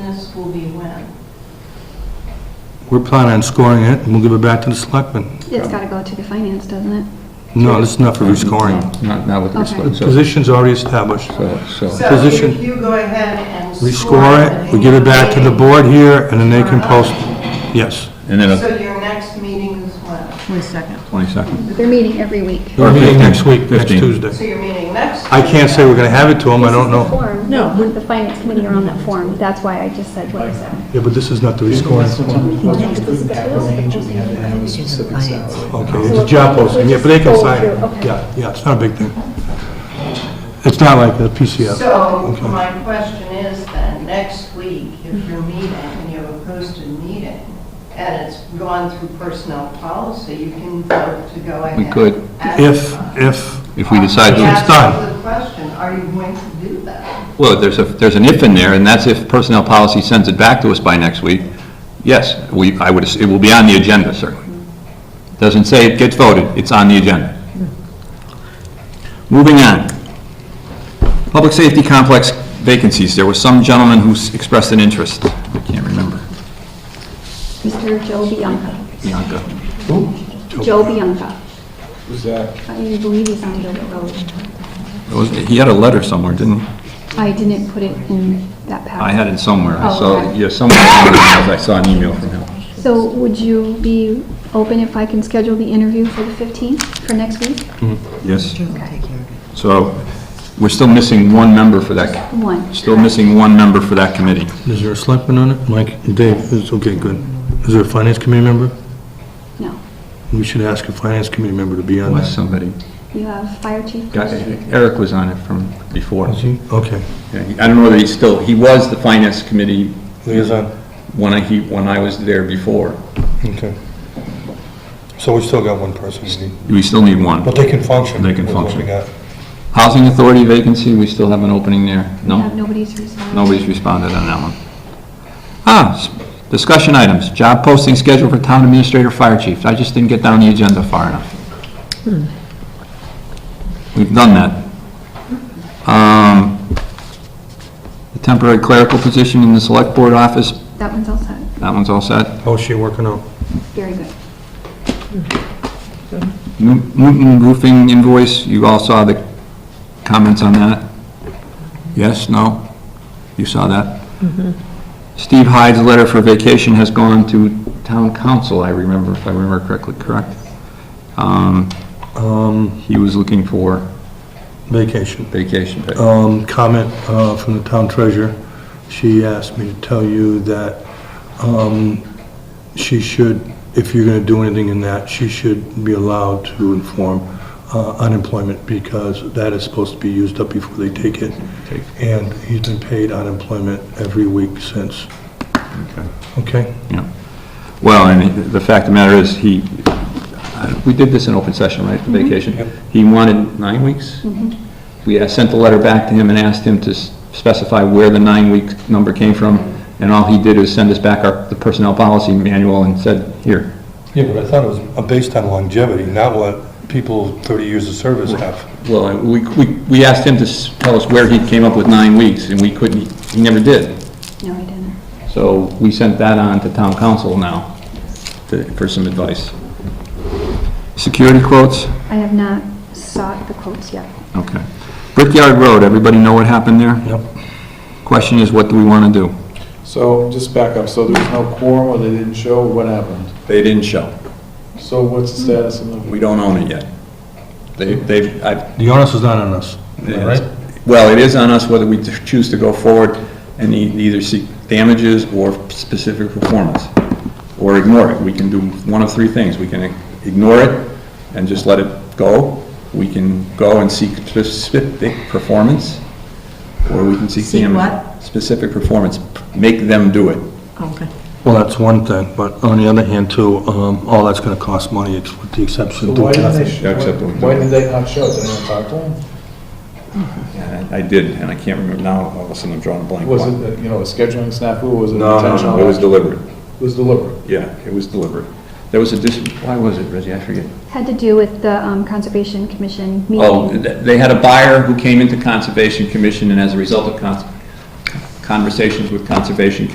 this will be when? We're planning on scoring it, and we'll give it back to the selectmen. It's got to go to the finance, doesn't it? No, this is not for rescoring. Not, not with Okay. respect, so, Position's already established. so, so, So Position. if you go ahead and score... We score it, we give it back to the board here, and then they can post, yes. and then a So your next meeting is when? Wait a second. twenty-second. They're meeting every week. We're meeting next week, next 15. So Tuesday. your meeting next? I can't say we're gonna have it to them, I don't know. No. The finance committee are on that form, that's why I just said what I said. Yeah, but this is not the rescoring. Okay, it's a job posting, yeah, but they can sign it. Yeah, yeah, it's not a big thing. It's not like the PCF. So Okay. my question is then, next week, if you're meeting and you have a posted meeting and it's gone through personnel policy, you can vote to go ahead. We could. at- If, if, If we decide Yeah. to, That's done. the question, are you going to do that? well, there's a, there's an if in there, and that's if personnel policy sends it back to us by next week. Yes, we, I would, ass- it will be on the agenda, certainly. Doesn't say it gets voted, it's on the agenda. Moving on. Public safety complex vacancies, there was some gentleman who s- expressed an interest, I can't remember, Mr. Joe Bianca. Bianca. Joe Bianca. Who's that? I believe he's on Gilbert Road. It was- He had a letter somewhere, didn't he? I didn't put it in that packet. I had it somewhere, I Oh, saw, okay. yeah, somewhere, I saw an email from him. So would you be open if I can schedule the interview for the 15th, for next week? Yes. Okay. So we're still missing one member for that, One. still missing one member for that committee. is there a selectman on it? Mike, Dave, is, okay, good. Is there a finance committee member? No. We should ask a finance committee member to be on Was that. somebody, You have fire chief. got- Eric was on it from before. Is he? Okay. Yeah, he- I don't know whether he's still, he was the finance committee Liaison. when I, he, when I was there before. Okay. So we still got one person we need, We still need one. but they can function. They can with what we function. got. Housing authority vacancy, we still have an opening there? You have No? nobody's response. Nobody's responded on that one. Ah, s- discussion items, job posting schedule for town administrator, fire chief. I just didn't get down the agenda far enough. We've done that. Um, The temporary clerical position in the select board office, That one's all set. that one's all set. How's she working out? Very good. New- Newton roofing invoice, you all saw the comments on that? Yes, no? You saw that? Steve Hyde's letter for vacation has gone to town council, I remember, if I remember correctly, correct? Um, Um, He was looking for vacation. vacation pay. Um, comment, uh, from the town treasurer. She asked me to tell you that, um, she should, if you're gonna do anything in that, she should be allowed to inform, uh, unemployment because that is supposed to be used up before they take it. Take. And he's been paid unemployment every week since. Okay. Okay? Yeah. Well, and the fact of the matter is, he, we did this in open session, right, for vacation? Yep. He wanted nine weeks? We uh, sent the letter back to him and asked him to s- specify where the nine-week number came from, and all he did was send us back our, the personnel policy manual and said, here. Yeah, but I thought it was uh, based on longevity, not what people 30 years of service have. Well, and we, we we asked him to s- tell us where he came up with nine weeks, and we couldn't, he never did. No, I didn't. So we sent that on to town council now to- for some advice. Security quotes? I have not sought the quotes yet. Okay. Brickyard Road, everybody know what happened there? Yep. Question is, what do we want to do? So, just back up, so there was no quorum, or they didn't show, what happened? They didn't show. So what's the status of the, We don't own it yet. They, they've, I, The onus is not on us, right? well, it is on us whether we choose to go forward and e- either seek damages or specific performance, or ignore it. We can do one of three things. We can ignore it and just let it go. We can go and seek specific performance, or we can seek Seek damages. what? Specific performance. Make them do it. Okay. Well, that's one thing, but on the other hand, too, um, all that's going to cost money, it's with the exception so of why doing didn't they, nothing. sh- why why did they not show, did anyone talk to them? Yeah, I I did, and I can't remember now, all of a sudden I'm drawing a blank. Was it, uh, you know, a scheduling snafu, was it No, no, intentional? no, it was deliberate, It was deliberate. yeah, it was deliberate. There was a dis, why was it, Reggie, I forget. Had to do with the um, Conservation Commission Oh, meeting. th- they had a buyer who came into Conservation Commission, and as a result of cons- conversations with Conservation